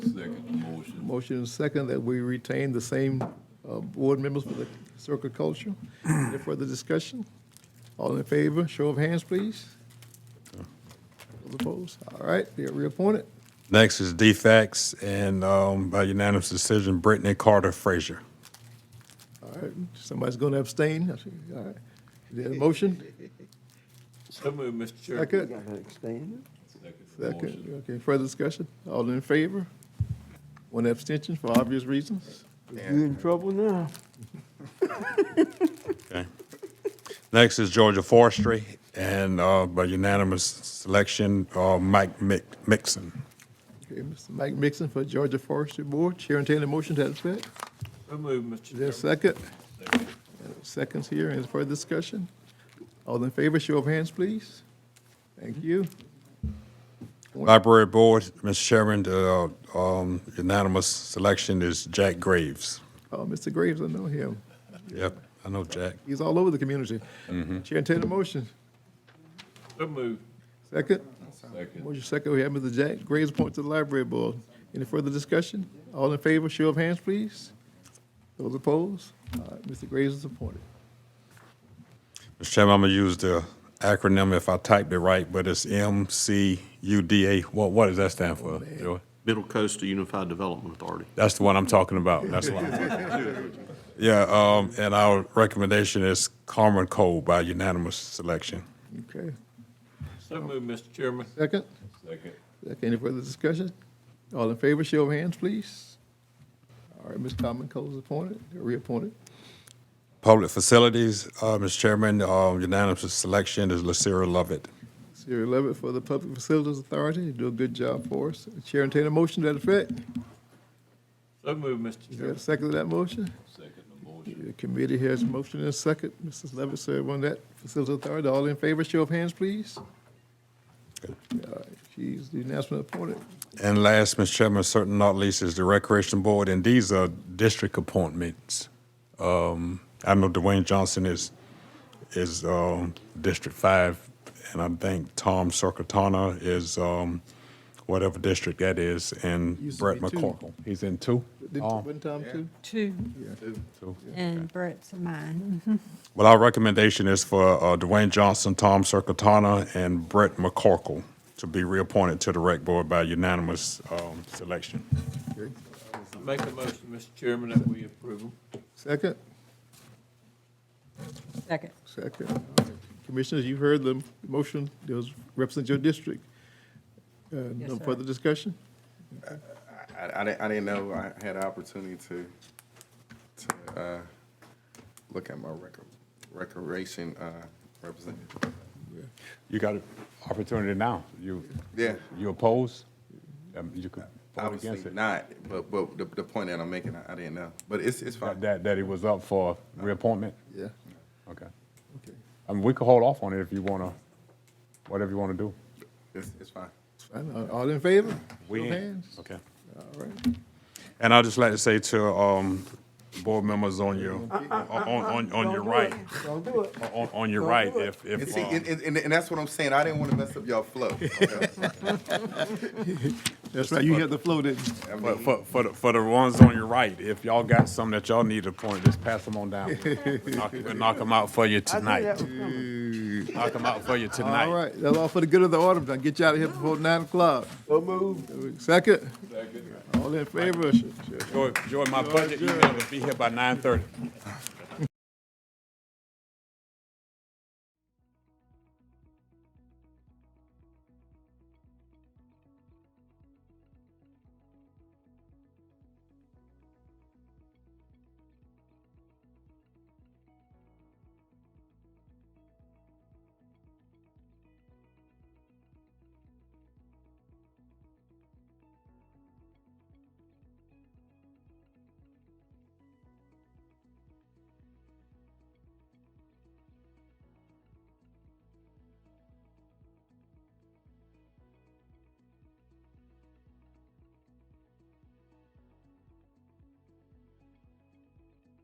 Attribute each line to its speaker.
Speaker 1: Second the motion.
Speaker 2: Motion and second that we retain the same uh, board members for the circle culture. Any further discussion? All in favor, show of hands, please. Those opposed? All right, they are reappointed.
Speaker 3: Next is defects, and um, by unanimous decision, Brittany Carter Frazier.
Speaker 2: All right, somebody's going to abstain. I see. All right. Is there a motion?
Speaker 1: So moved, Mr. Chair.
Speaker 2: Second?
Speaker 4: gotta expand it.
Speaker 1: Motion.
Speaker 2: Second, okay, further discussion? All in favor? One abstention for obvious reasons.
Speaker 4: You in trouble now.
Speaker 3: Okay. Next is Georgia Forestry, and uh, by unanimous selection, uh, Mike Mick- Mixon.
Speaker 2: Okay, Mr. Mike Mixon for Georgia Forestry Board. Chair and Taylor, motion to that effect?
Speaker 1: So moved, Mr.
Speaker 2: Is there a
Speaker 1: Chair.
Speaker 2: second? Seconds here, any further discussion? All in favor, show of hands, please. Thank you.
Speaker 3: Library Board, Mr. Chairman, the uh, um, unanimous selection is Jack Graves.
Speaker 2: Oh, Mr. Graves, I know him.
Speaker 3: Yep, I know Jack.
Speaker 2: He's all over the community. Chair and Taylor, motion.
Speaker 1: So moved.
Speaker 2: Second?
Speaker 1: Second.
Speaker 2: Motion second, we have Mr. Jack Graves appointed to the library board. Any further discussion? All in favor, show of hands, please. Those opposed? All right, Mr. Graves is appointed.
Speaker 3: Mr. Chairman, I'm gonna use the acronym if I typed it right, but it's MCUDA. What, what does that stand for, Joey?
Speaker 5: Middle Coast Unified Development Authority.
Speaker 3: That's the one I'm talking about. That's the one. Yeah, um, and our recommendation is Carmen Cole by unanimous selection.
Speaker 2: Okay,
Speaker 1: So moved, Mr. Chairman.
Speaker 2: second?
Speaker 1: Second.
Speaker 2: Second, any further discussion? All in favor, show of hands, please. All right, Ms. Common Cole is appointed, reappointed.
Speaker 3: Public Facilities, uh, Mr. Chairman, uh, unanimous selection is Lucira Lovett.
Speaker 2: Sierra Levitt for the Public Facilities Authority, you do a good job for us. Chair entertain a motion to that effect.
Speaker 1: So moved, Mr.
Speaker 2: Is there a
Speaker 1: Chairman.
Speaker 2: second to that motion?
Speaker 1: Second the motion.
Speaker 2: The committee has motion and second. Mrs. Levitt serve on that Facilities Authority. All in favor, show of hands, please. All right, She's the announcement appointed.
Speaker 3: And last, Mr. Chairman, certain not least, is the Recreation Board, and these are district appointments. Um, I know Dwayne Johnson is, is, um, District Five, and I think Tom Circutana is, um, whatever district that is, and
Speaker 2: Used to
Speaker 3: Brett
Speaker 2: be two.
Speaker 3: McCorkle. He's in two?
Speaker 2: Did
Speaker 3: Oh.
Speaker 2: one time too?
Speaker 6: Two,
Speaker 3: Two.
Speaker 6: and Brett's mine. Mm-hmm.
Speaker 3: Well, our recommendation is for, uh, Dwayne Johnson, Tom Circutana, and Brett McCorkle to be reappointed to the Rec Board by unanimous, um, selection.
Speaker 1: Make a motion, Mr. Chairman, that we approve them.
Speaker 2: Second?
Speaker 6: Second.
Speaker 2: Second. Commissioners, you've heard the motion, those represent your district. Uh,
Speaker 6: Yes,
Speaker 2: No
Speaker 6: sir.
Speaker 2: further discussion?
Speaker 7: I, I didn't, I didn't know I had an opportunity to, to, uh, look at my record, recreation, uh, representative.
Speaker 3: You got an opportunity now. You,
Speaker 7: Yeah.
Speaker 3: you oppose? Um, You could vote against
Speaker 7: Obviously
Speaker 3: it.
Speaker 7: not, but, but the, the point that I'm making, I, I didn't know, but it's, it's
Speaker 3: That,
Speaker 7: fine.
Speaker 3: that- that it was up for reappointment?
Speaker 2: Yeah.
Speaker 3: Okay.
Speaker 2: Okay.
Speaker 3: I mean, we could hold off on it if you want to, whatever you want to do.
Speaker 7: It's, it's fine.
Speaker 2: All- All in favor?
Speaker 3: We
Speaker 2: Show of
Speaker 3: in.
Speaker 2: hands.
Speaker 3: Okay.
Speaker 2: All right.
Speaker 3: And I'd just like to say to, um, board members on your, on, on, on your
Speaker 4: Don't do
Speaker 3: right,
Speaker 4: it. Don't do it.
Speaker 3: on, on your right, if,
Speaker 7: And
Speaker 3: if,
Speaker 7: see, and,
Speaker 3: um,
Speaker 7: and, and- and that's what I'm saying, I didn't want to mess up y'all flow.
Speaker 2: That's right, you had the flow, didn't you?
Speaker 7: I
Speaker 3: um, for,
Speaker 7: mean,
Speaker 3: for, for the, for the ones on your right, if y'all got some that y'all need to point, just pass them on down. We'll knock- We'll knock them out for you
Speaker 4: I knew that
Speaker 3: tonight.
Speaker 4: was coming.
Speaker 3: Knock them out for you tonight.
Speaker 2: All right, that's all for the good of the order, I'll get you out of here before nine o'clock.
Speaker 4: So moved.
Speaker 2: Second? All in favor? Sh- sh-
Speaker 3: Joy, Joy, my budget email will be here by nine thirty.